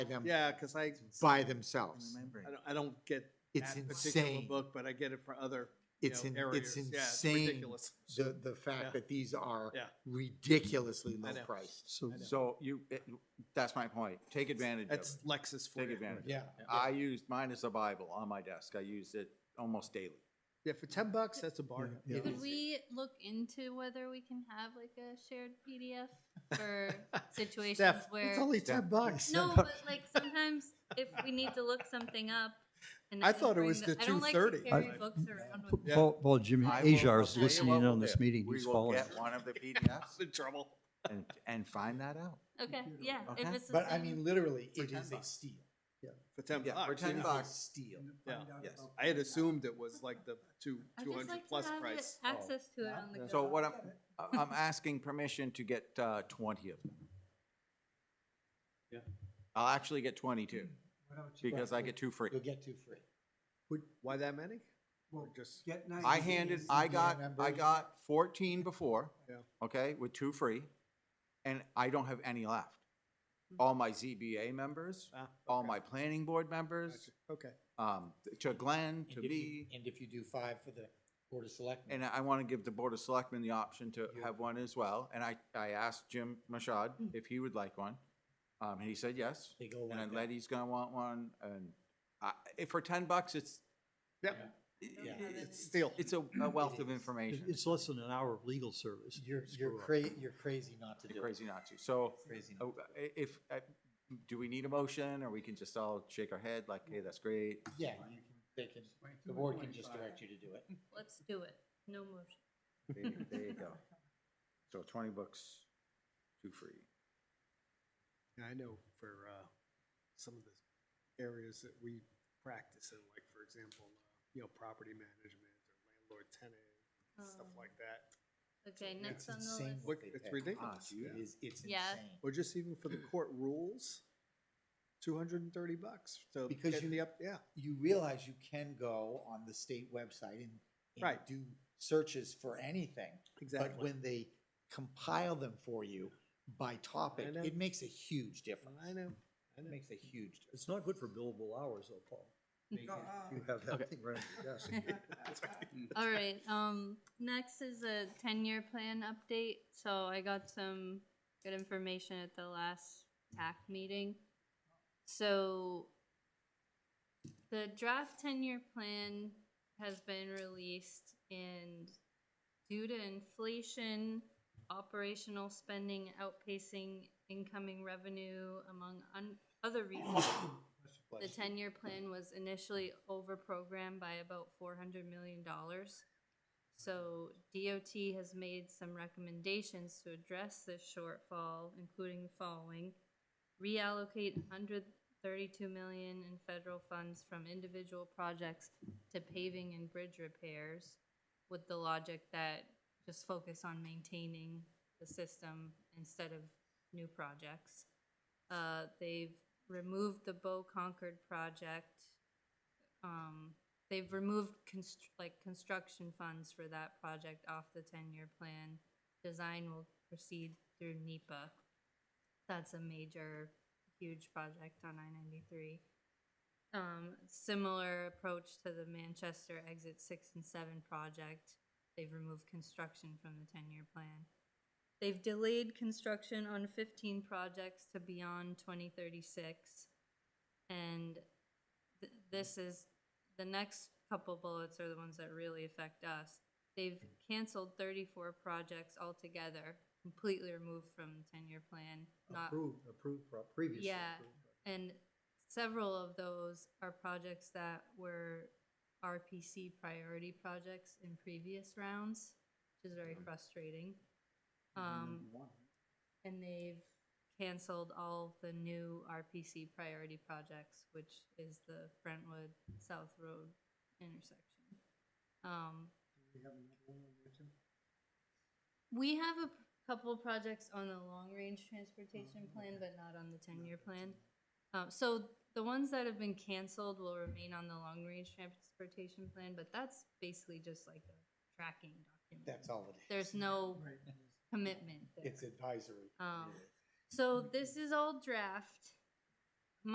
them Yeah, because I, Um, by themselves. I don't, I don't get It's that particular insane. book, but I get it for other, you It's know, in, it's areas. Yeah, it's insane, ridiculous. the, the Yeah. fact that these are Yeah. ridiculously I low know. priced. So, I know. so you, it- that's my point. Take advantage of it. That's Lexus for Take you. advantage. Yeah. I used, mine is a Bible on my desk. I use it almost daily. Yeah, for ten bucks, that's a bargain. Yeah. It Could is. we look into whether we can have like a shared PDF for situations Steph, where? It's only ten bucks. No, but like sometimes if we need to look something up. and I can thought it bring was the I don't like to 230. carry I- books around with me. Yeah. Paul, Paul, Jimmy I will Ajar is look- listening in on this meeting. We He's will following. get one of the PDFs I'm in trouble. and, and find that out. Okay, yeah, if Okay. it's the But I same- mean, literally, For it 10 is a bucks. steal. For ten Yeah, bucks. for ten yeah. bucks. Steal. Yeah. Yes. I had assumed it was like the two, I'd two just hundred like to plus have it- price. Access to it on the go. So what I'm, I- I'm asking permission to get uh, twenty of them. Yeah. I'll actually get twenty-two because I get two free. You'll get two free. Would- Why that many? Or Well, Just, get ninety I handed, days I and got, get I members. got fourteen before, Yeah. okay, with two free, and I don't have any left. Hmm. All my ZBA members, ah, all okay, my planning board members, gotcha. Okay, um, to Glenn, to me, And if you do five for the Board of Selectmen. and I want to give the Board of Selectmen the option to Yeah. have one as well, and I, I asked Jim Mashad if he would like one, um, and he said yes, They go and like then that. Letty's gonna want one, and I, if for ten bucks, it's, Yep. Yeah. it's, It's still, it's a a wealth of is. information. It's less than an hour of legal service. You're, Screw you're up. cra- you're crazy not to You're do it. Crazy not to. So Crazy uh, not to. i- if, uh, do we need a motion or we can just all shake our head like, hey, that's great? Yeah, you can, they can, the board can just direct you to do it. Let's do it. No motion. There you- There you go. So twenty bucks, two free. I know for, uh, some of the areas that we practice in, like, for example, uh, you know, property management or landlord tenant, stuff Um, like that. Okay, Yeah. next It's on the insane list. what Look, they it's pay. ridiculous. It Yeah. is, it's Yeah. insane. Or just even for the Hmm. court rules, two hundred and thirty bucks to Because get you- the up, yeah. you realize you can go on the state website and, and Right. do searches for anything. But Exactly. when they compile them for you by topic, know. it makes a huge difference. I know, I It know. makes a huge difference. It's not good for billable hours though, Paul. You have that thing right on your desk. All right, um, next is a ten-year plan update, so I got some good information at the last TAC meeting. So the draft ten-year plan has been released and due to inflation, operational spending outpacing incoming revenue among un- other reasons, the ten-year plan was initially overprogrammed by about four hundred million dollars. So DOT has made some recommendations to address this shortfall, including the following. Reallocate hundred thirty-two million in federal funds from individual projects to paving and bridge repairs with the logic that just focus on maintaining the system instead of new projects. Uh, they've removed the Bow Concord project. Um, they've removed constr- like construction funds for that project off the ten-year plan. Design will proceed through NEPA. That's a major, huge project on I ninety-three. Um, similar approach to the Manchester Exit Six and Seven project. They've removed construction from the ten-year plan. They've delayed construction on fifteen projects to beyond twenty thirty-six. And th- this is, the next couple bullets are the ones that really affect us. They've canceled thirty-four projects altogether, completely removed from the ten-year plan, not Approved, approved, pro- previously. Yeah. approved. and several of those are projects that were RPC priority projects in previous rounds, which is very frustrating. Um, and they've canceled all the new RPC priority projects, which is the Brentwood South Road intersection. Um, we have a p- couple projects on the long-range transportation plan, but Mm-hmm. not on the ten-year plan. Uh, so the ones that have been canceled will remain on the long-range transportation plan, but that's basically just like a tracking document. That's all it is. There's no commitment there. It's advisory. Um, so this is all draft.